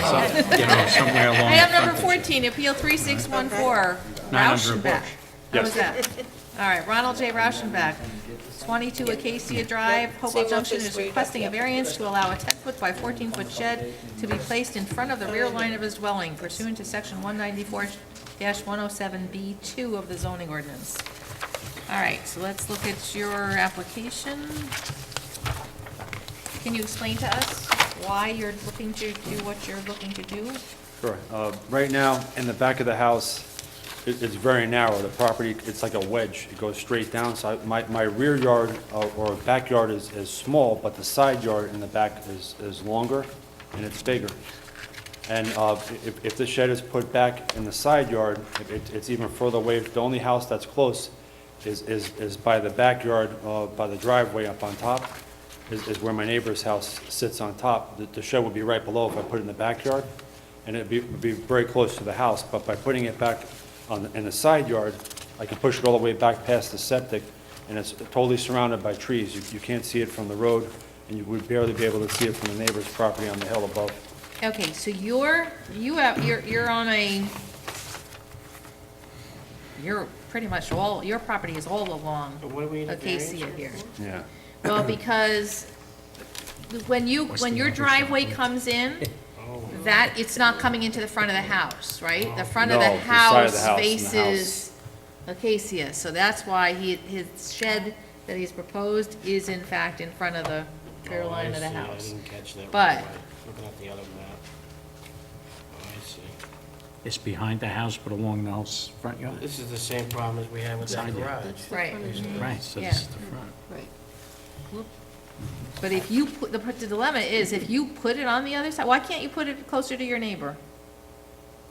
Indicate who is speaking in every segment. Speaker 1: so, you know, somewhere along.
Speaker 2: I have
Speaker 1: the
Speaker 2: number
Speaker 1: frontage.
Speaker 2: 14, Appeal 3614,
Speaker 1: Not under a
Speaker 2: Rauschenbeck.
Speaker 1: bush.
Speaker 2: How was that? All right, Ronald J. Rauschenbeck, 22 Acacia Drive, Hopewell Junction is requesting a variance to allow a 10-foot by 14-foot shed to be placed in front of the rear line of his dwelling pursuant to Section 194-107B2 of the zoning ordinance. All right, so let's look at your application. Can you explain to us why you're looking to do what you're looking to do?
Speaker 3: Sure. Uh, Right now, in the back of the house, it- it's very narrow. The property, it's like a wedge. It goes straight down. So I- my my rear yard uh, or backyard is is small, but the side yard in the back is is longer and it's bigger. And uh, if if the shed is put back in the side yard, it- it- it's even further away. The only house that's close is is is by the backyard, uh, by the driveway up on top, is is where my neighbor's house sits on top. The- The shed would be right below if I put it in the backyard, and it'd be would be very close to the house. But by putting it back on the- in the side yard, I can push it all the way back past the septic, and it's totally surrounded by trees. You- You can't see it from the road, and you would barely be able to see it from the neighbor's property on the hill above.
Speaker 2: Okay, so you're, you have, you're, you're on a, you're pretty much all, your property is all along
Speaker 4: What do we need a variance
Speaker 2: Acacia here.
Speaker 3: Yeah.
Speaker 2: Well, because when you, when your driveway comes in,
Speaker 3: Oh.
Speaker 2: that, it's not coming into the front of the house, right? The front of the
Speaker 3: No, the side of the
Speaker 2: house
Speaker 3: house and the
Speaker 2: faces Acacia, so that's why he, his shed that he's proposed is in fact in front of the rear
Speaker 4: Oh, I
Speaker 2: line of the
Speaker 4: see. I
Speaker 2: house.
Speaker 4: didn't catch that.
Speaker 2: But-
Speaker 4: right away. Looking at the other map. Oh, I see.
Speaker 1: It's behind the house, but along the house front yard.
Speaker 4: This is the same problem as we had with that
Speaker 1: Side yard.
Speaker 4: garage.
Speaker 2: Right.
Speaker 1: Right, so
Speaker 2: Yeah.
Speaker 1: this is the front.
Speaker 2: Right. But if you put, the the dilemma is, if you put it on the other side, why can't you put it closer to your neighbor?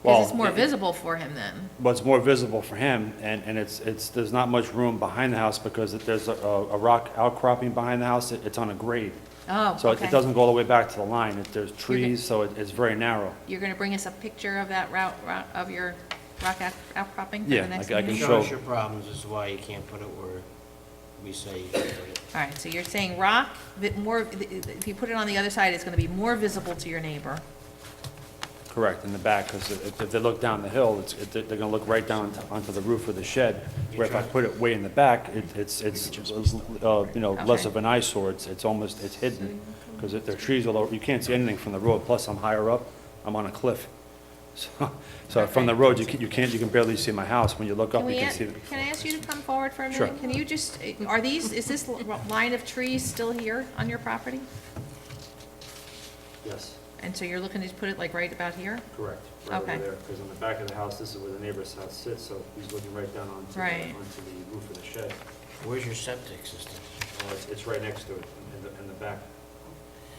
Speaker 2: Because it's
Speaker 3: Well,
Speaker 2: more
Speaker 3: it-
Speaker 2: visible for him then.
Speaker 3: what's more visible for him, and, and it's, it's, there's not much room behind the house because if there's a, a rock outcropping behind the house, it- it's on a grade.
Speaker 2: Oh,
Speaker 3: So it-
Speaker 2: okay.
Speaker 3: it doesn't go all the way back to the line, It- there's trees, so it- it's very narrow.
Speaker 2: You're gonna bring us a picture of that route, route, of your rock out- outcropping for
Speaker 3: Yeah,
Speaker 2: the
Speaker 3: I
Speaker 2: next
Speaker 3: ca- I can
Speaker 2: meeting?
Speaker 3: show-
Speaker 4: Show us your problems is why you can't put it where we say you can put it.
Speaker 2: All right, so you're saying rock, that more, if you put it on the other side, it's gonna be more visible to your neighbor.
Speaker 3: Correct, in the back, because if, if they look down the hill, it's, it- they're gonna look right down to- onto the roof of the shed, where if I put it way in the back, it- it's, it's, uh, you know, less
Speaker 2: Okay.
Speaker 3: of an eyesore, it's, it's almost, it's hidden, because there are trees all over, you can't see anything from the road, plus I'm higher up, I'm on a cliff. So, so from the
Speaker 2: Okay.
Speaker 3: road, you can, you can't, you can barely see my house, when you look
Speaker 2: Can
Speaker 3: up, you
Speaker 2: we,
Speaker 3: can
Speaker 2: a-
Speaker 3: see. the-
Speaker 2: can I ask you to come forward for a
Speaker 3: Sure.
Speaker 2: minute? Can you just, eh, are these, is this l- line of trees still here on your property?
Speaker 3: Yes,
Speaker 2: And so you're looking to put it like right about here?
Speaker 3: correct,
Speaker 2: right over Okay. there,
Speaker 3: because on the back of the house, this is where the neighbor's house sits, so he's looking right down onto,
Speaker 2: the- Right. onto
Speaker 3: the roof of the shed.
Speaker 4: Where's your septic system?
Speaker 3: Well, it's, it's right next to it, in the, in the back.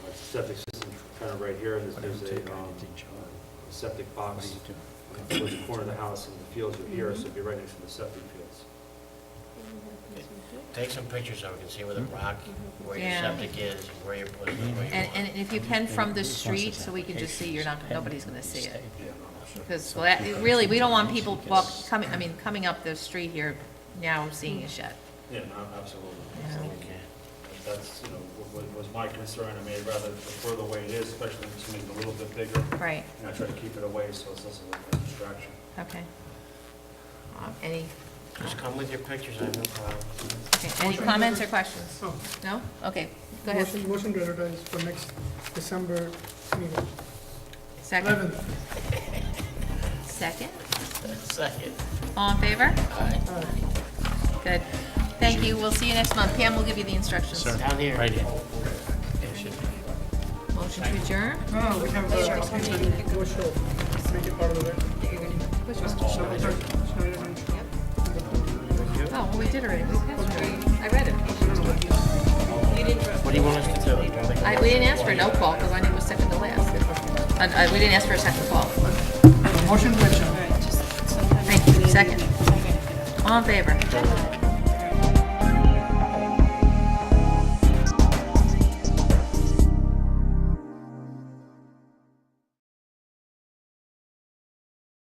Speaker 3: Uh, it's Septic system kind of right here, and there's there's a, um, uh, septic box towards the corner of the house, and the fields are here, so it'd be right next to the septic fields.
Speaker 4: Take some pictures so we can see where
Speaker 1: Hmm?
Speaker 4: the rock, where your
Speaker 2: Yeah.
Speaker 4: septic is, where you're putting it, where you
Speaker 2: And,
Speaker 4: want.
Speaker 2: and if you can from the street, so we can just see, you're not, nobody's gonna see it. Because really, we don't want people walk, coming, I mean, coming up the street here now seeing a shed.
Speaker 3: Yeah, no, absolutely.
Speaker 2: Yeah.
Speaker 4: Okay.
Speaker 3: That's, you know, what, what was my concern, I mean, rather, the further away it is, especially if it's made a little bit bigger,
Speaker 2: Right,
Speaker 3: and I try to keep it away, so it's less of a distraction.
Speaker 2: okay. Um, Any,
Speaker 4: Just come with your pictures, I have no problem.
Speaker 2: okay, any comments or questions?
Speaker 5: Oh,
Speaker 2: No? Okay, go ahead.
Speaker 5: Motion, motion to advertise for next December meeting,
Speaker 2: Second,
Speaker 5: eleventh.
Speaker 2: second,
Speaker 4: Second.
Speaker 2: all in favor? Good. Thank you, we'll see you next month. Pam will give you the instructions.
Speaker 4: Down here.
Speaker 1: Right here.
Speaker 2: Motion to adjourn?
Speaker 5: No, no, we have, uh, go show, make it part of the,
Speaker 2: Which one?
Speaker 5: show the, show
Speaker 2: Oh, well, we did already, we passed already. I read it.
Speaker 4: What do you want us to do? Make a
Speaker 2: I, we didn't ask for no call, because I knew it was second to last. And, uh, we didn't ask for a second call.
Speaker 5: the, motion to adjourn.
Speaker 2: Thank you, second. All in favor?